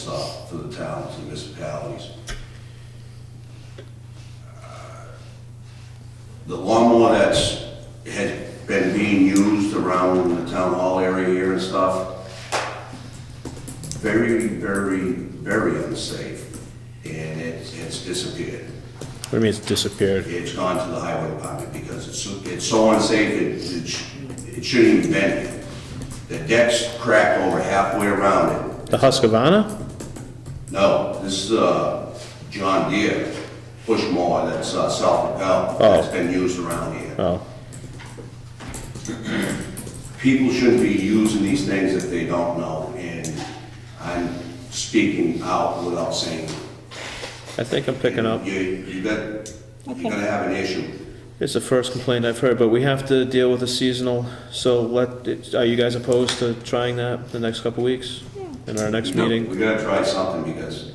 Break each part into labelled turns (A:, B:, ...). A: stuff uh, for the towns and municipalities. The lawnmower that's, had been being used around the town hall area here and stuff, very, very, very unsafe, and it's, it's disappeared.
B: What do you mean it's disappeared?
A: It's gone to the highway department because it's, so- it's so unsafe, it, it sh- it shouldn't even been here. The deck's cracked over halfway around it,
B: The Husqvarna?
A: No, this is a John Deere push mower that's uh, self-propelled,
B: Oh.
A: that's been used around here.
B: Oh,
A: People shouldn't be using these things if they don't know, and I'm speaking out without saying.
B: I think I'm picking up.
A: You, you got, you're gonna have an issue.
B: It's the first complaint I've heard, but we have to deal with the seasonal, so let, it- are you guys opposed to trying that the next couple weeks? In our next meeting?
A: We gotta try something because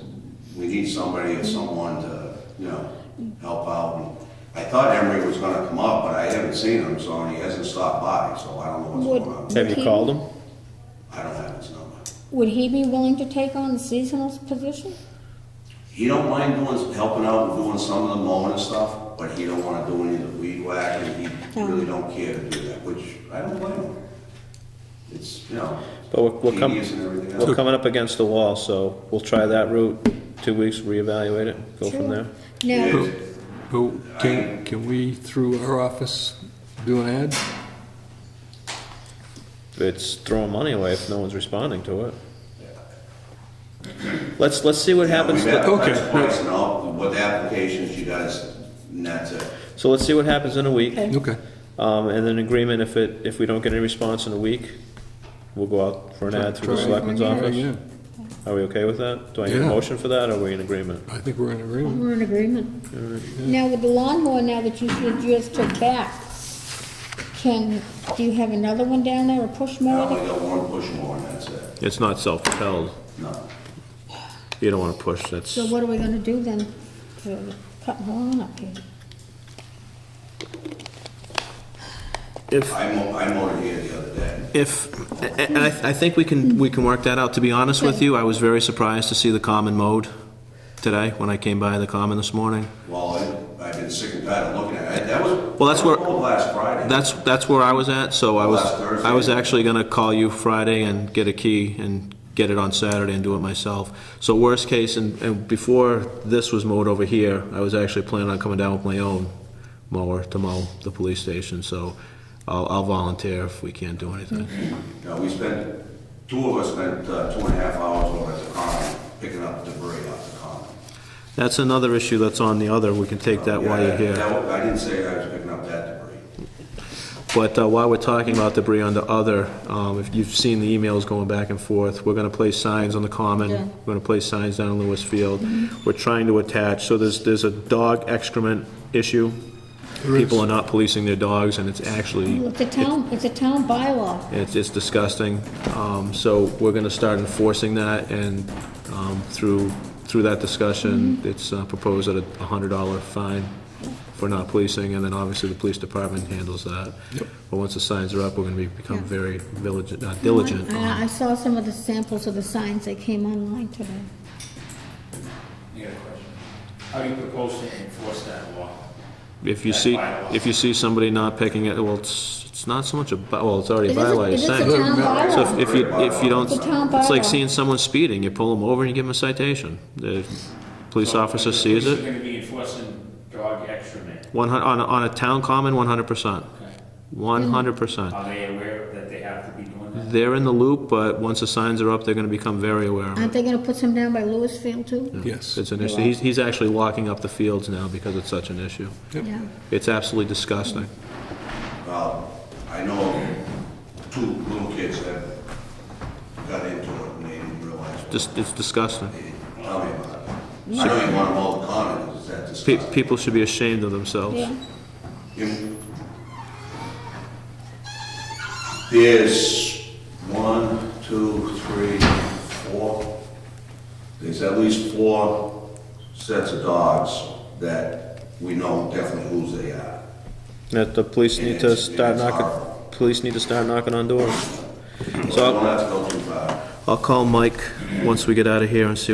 A: we need somebody or someone to, you know, help out. And I thought Emery was gonna come up, but I haven't seen him, so he hasn't stopped by, so I don't know what's
C: Would-
A: going on.
B: Have you called them?
A: I don't have his number.
C: Would he be willing to take on the seasonal position?
A: He don't mind doing, helping out and doing some of the mowing and stuff, but he don't wanna do any of the weed whacking, he
C: No.
A: really don't care to do that, which I don't blame him. It's, you know,
B: But we're, we're
A: tedious
B: coming,
A: and everything
B: we're
A: else.
B: coming up against the wall, so we'll try that route, two weeks, reevaluate it, go from
C: Sure.
B: there.
C: No,
A: It-
D: But can, can we, through our office, do an ad?
B: It's throwing money away if no one's responding to it. Let's, let's see what happens,
A: We've
B: to-
A: advertised
D: Okay.
A: twice and all, with applications, you guys, and that's it.
B: so let's see what happens in a week.
C: Okay.
D: Okay.
B: Um, and then agreement, if it, if we don't get any response in a week, we'll go out for an ad through the
D: Try-
B: selectman's
D: try
B: office.
D: again.
B: Are we okay with that? Do I need a
D: Yeah.
B: motion for that, or are we in agreement?
D: I think we're in agreement.
C: we're in agreement. Now, with the lawnmower now that you said you just took back, can, do you have another one down there, a push
A: I
C: mower?
A: only got one push mower and that's it,
B: It's not self-propelled.
A: no.
B: You don't wanna push, that's,
C: So what are we gonna do then to cut the lawn up here?
B: if,
A: I mo, I mowed it here the other day,
B: if, a- and I, I think we can, we can work that out. To be honest with you, I was very surprised to see the common mode today, when I came by the common this morning.
A: well, I, I've been sick and tired of looking at it, that was.
B: Well, that's
A: that was
B: where-
A: mowed Last Friday.
B: That's, that's where I was at, so I was,
A: Last Thursday.
B: I was actually gonna call you Friday and get a key and get it on Saturday and do it myself. So worst case, and, and before this was mowed over here, I was actually planning on coming down with my own mower to mow the police station, so I'll, I'll volunteer if we can't do anything.
A: No, we spent, two of us spent uh, two and a half hours over at the common, picking up debris off the common.
B: That's another issue that's on the other, we can take that while you're
A: Yeah,
B: here.
A: that wa- I didn't say I was picking up that debris.
B: But uh, while we're talking about debris on the other, um, if you've seen the emails going back and forth, we're gonna place signs on the common,
C: Yeah. Mm-hmm.
B: we're gonna place signs down in Lewis Field. We're trying to attach, so there's, there's a dog excrement issue.
D: is.
B: People are not policing their dogs, and it's
C: Well,
B: actually,
C: It's a town, it's a town bylaw.
B: it's, it's disgusting. Um, So we're gonna start enforcing that, and um, through, through that discussion,
C: Mm-hmm.
B: it's uh, proposed at a hundred dollar fine for not policing, and then obviously the police department handles that. But once the signs are up, we're gonna be, become
C: Yeah.
B: very diligent, uh, diligent.
C: I, I
B: on-
C: saw some of the samples of the signs that came online today.
E: You got a question? How do you propose to enforce that law?
B: If you see,
E: Bylaw.
B: if you see somebody not picking it, well, it's, it's not so much a, by- well, it's already a
C: It is a-
B: bylaw, you're
C: It is a
B: saying.
C: town
D: Yeah.
B: So if-
C: bylaw.
B: if you, if you don't,
C: It's a town
B: it's like
C: bylaw.
B: seeing someone speeding, you pull them over and you give them a citation. The police
E: So,
B: officer
E: the
B: sees
E: police
B: it,
E: are gonna be enforcing dog excrement.
B: one hun, on, a- on a town common, one hundred percent,
E: Okay.
B: one hundred percent.
E: Are they aware that they have to be doing that?
B: They're in the loop, but once the signs are up, they're gonna become very aware of it.
C: Aren't they gonna put some down by Lewisfield too?
D: Yes.
B: It's an issue. He's, he's actually locking up the fields now because it's such an issue.
D: Yep.
C: Yeah.
B: It's absolutely disgusting.
A: Well, I know two little kids that got into it and they didn't realize. what
B: Just, it's disgusting.
A: They didn't tell me about it. I don't even want to mow the common, 'cause it's that
B: Pe-
A: disgusting.
B: people should be ashamed of themselves.
C: Yeah.
A: You- There's one, two, three, four, there's at least four sets of dogs that we know definitely whose they are.
B: That the police need to
A: It's-
B: start
A: it's
B: knocking,
A: horrible.
B: police need to start knocking on doors.
A: So
B: So-
A: don't have to go too far.
B: I'll call Mike once we get out of here and see what